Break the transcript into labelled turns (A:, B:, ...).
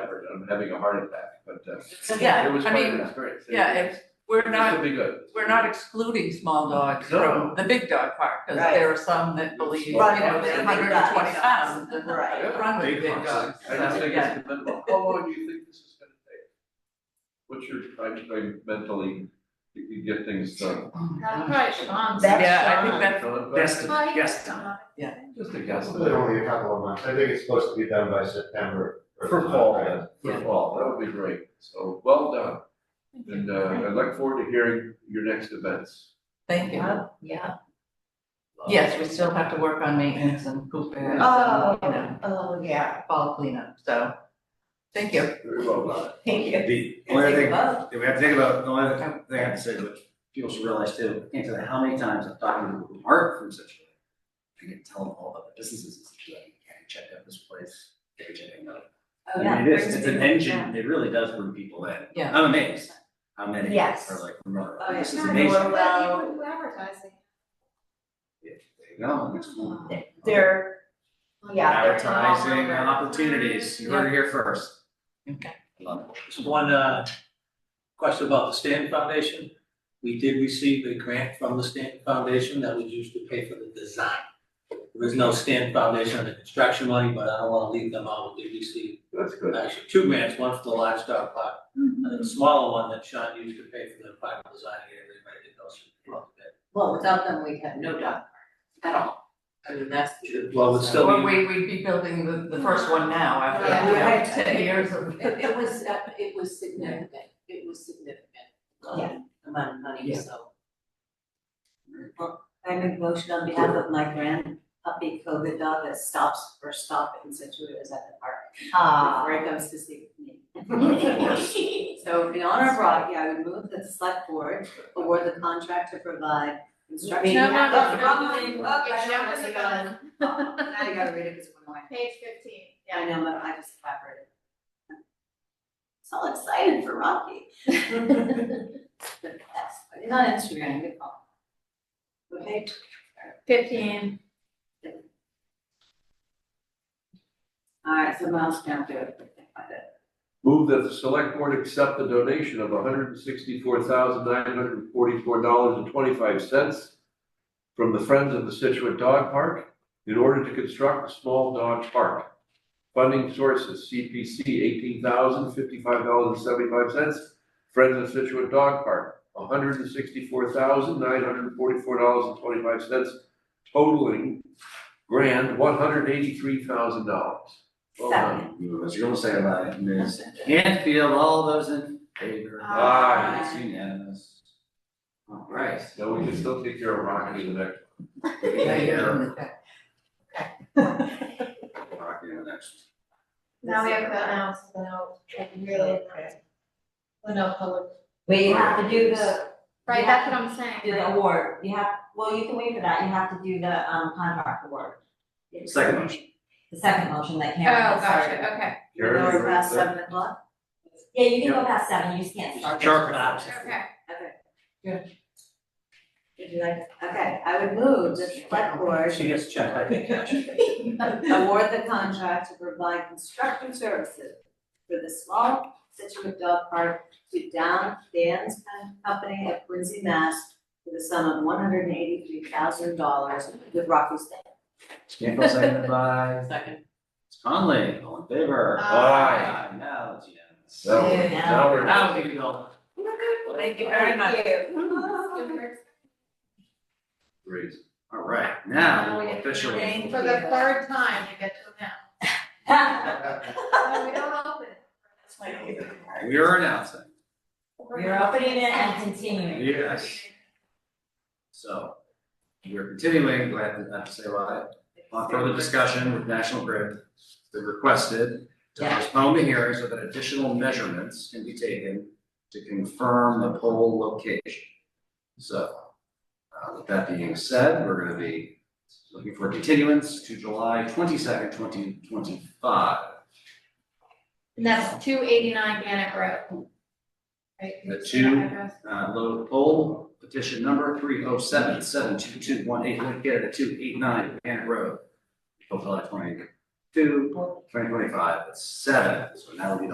A: from having a heart attack, but uh,
B: Yeah,
A: it was
B: I
A: quite
B: mean,
A: an experience. It-
B: yeah, it's- We're
A: This will
B: not,
A: be good.
B: we're not excluding small dogs
A: No.
B: from the big dog park, because
C: Right.
B: there are some that believe, you
A: Right,
B: know,
A: they're big
B: they're hundred and twenty pounds. and
C: dogs. Right.
B: they're Run with big dogs,
A: I just
B: so,
A: think
B: yeah.
A: it's commendable. How long do you think this is gonna take? What's your time frame mentally, you can get things
B: Oh
A: done?
D: That's probably Sean's.
C: That's
B: Yeah, I
C: fine.
B: think that's,
A: Philip,
E: Best,
D: Hi.
E: best time.
A: Just a guess.
F: Really only a couple of months, I think it's supposed to be done by September. or
A: For
F: something
A: fall,
F: like that.
A: For fall, that would be great. So, well done. And uh, I look forward to hearing your next events.
B: thank you.
C: Yeah.
B: Yes, we still have to work on maintenance and poop and, you
C: Oh,
B: know,
C: oh, yeah,
B: fall cleanup, so, thank you.
A: Very well done.
C: thank you.
E: The only
C: Take
E: thing
C: a vote.
E: that we have to think about, the only thing I have to say, which people should realize too, I can't tell you how many times I've talked to Mark from such a, I can tell them all about the businesses, it's like, yeah, you check out this place, yeah, you check out that.
C: Oh,
E: I mean, it is, it's an engine, it really does bring people in.
B: Yeah.
E: I'm amazed how many are
C: Yes.
E: like, remember,
C: Oh, yeah.
E: this is
C: Sure,
E: amazing.
C: well-
D: advertising.
E: Yeah, There you go, next one.
C: They're, yeah, they're.
E: Advertising opportunities, you heard it here first.
B: Okay.
E: Love it.
G: Just one uh, question about the Stanton Foundation. We did receive a grant from the Stanton Foundation that was used to pay for the design. There is no Stanton Foundation on the construction money, but I don't want to leave them out. We did receive
A: That's good.
G: actually two grants, one for the livestock park, and then a smaller one that Sean used to pay for the park design and everybody did those.
C: Well, without them, we have no dog
B: At all. I mean, that's true.
G: Well, it's still.
B: Or we, we'd be building the, the first one now after,
D: Yeah.
B: you know, ten years of.
H: It, it was, uh, it was significant, it was significant,
C: Yeah.
H: um, amount of money,
B: Yeah.
H: so.
I: I make a motion on behalf of my grand puppy COVID dog that stops or stop in Situate is at the park
C: Ah.
I: before it goes to sleep with me.
A: Of course.
I: So in honor of Rocky, I would move that the select board award the contract to provide instruction. Oh,
C: No,
D: no, no,
I: Okay,
D: Okay,
I: now
D: now it's
I: you
D: gone.
I: gotta- now you gotta read it because it went away.
D: Page fifteen,
I: I
D: yeah.
I: know, but I just evaporated. So excited for Rocky. The best.
C: It's on Instagram, good call.
I: Okay,
D: Fifteen.
I: all right, so Miles can't do it, but I did.
A: Move that the select board accept the donation of hundred and sixty-four thousand nine hundred and forty-four dollars and twenty-five cents from the Friends of the Situate Dog Park in order to construct a small dog park. Funding sources, CPC eighteen thousand fifty-five dollars and seventy-five cents. Friends of Situate Dog Park, hundred and sixty-four thousand nine hundred and forty-four dollars and twenty-five cents totaling grand one hundred eighty-three thousand dollars.
I: Second.
E: You were- as you're gonna say about it, Ms. Canfield, all those in favor?
A: Aye.
E: It's unanimous. All right.
A: No, we can still take care of Rocky in the next.
B: Yeah,
E: Take care of
B: yeah.
E: Rocky in the next.
D: Now we have to um, announce the note, like really announce. The note public.
I: We have to do the,
D: Right, that's what I'm saying.
I: do the award, you have, well, you can wait for that, you have to do the, um, contract award.
E: Second motion.
I: The second motion that
D: Oh,
I: Karen has started.
D: gotcha, okay,
A: Karen,
I: Or
A: you're right
I: past
A: there.
I: seven o'clock? Yeah, you can go past seven, you just can't start.
E: Sharp
I: it.
E: knives.
D: okay.
I: Would you like, okay, I would move the select board
G: She gets checked, I think, cash.
I: award the contract to provide construction services for the small Situate Dog Park to Down Dan's Company of Quincy, Mass. for the sum of one hundred and eighty-three thousand dollars with Rocky State.
E: Canfield seconded by
H: Second.
E: Conley, all in favor?
D: Aye.
E: Aye, now it's unanimous.
A: Now,
I: Yeah.
A: now we're.
E: Now we can go.
B: Thank you very much.
A: Great.
E: All right, now
D: Now we
E: we'll
D: get to
E: officially.
D: For the third time, you get to announce. No, we don't open it.
E: We are announcing.
I: We're opening it and continuing.
E: Yes. So we're continuing, glad to have to say why, on further discussion with National Grid. They requested to
I: Yeah.
E: postpone the hearing so that additional measurements can be taken to confirm the pole location. So, uh, with that being said, we're gonna be looking for continuance to July twenty-second, twenty twenty-five.
D: And that's two eighty-nine Gannett Road. Right,
E: The
D: it's
E: two-
D: that address.
E: Uh, load poll, petition number three oh seven seven two two one eight, located at two eight nine Gannett Road. Hopefully twenty two, twenty twenty five, at seven, so now we will be the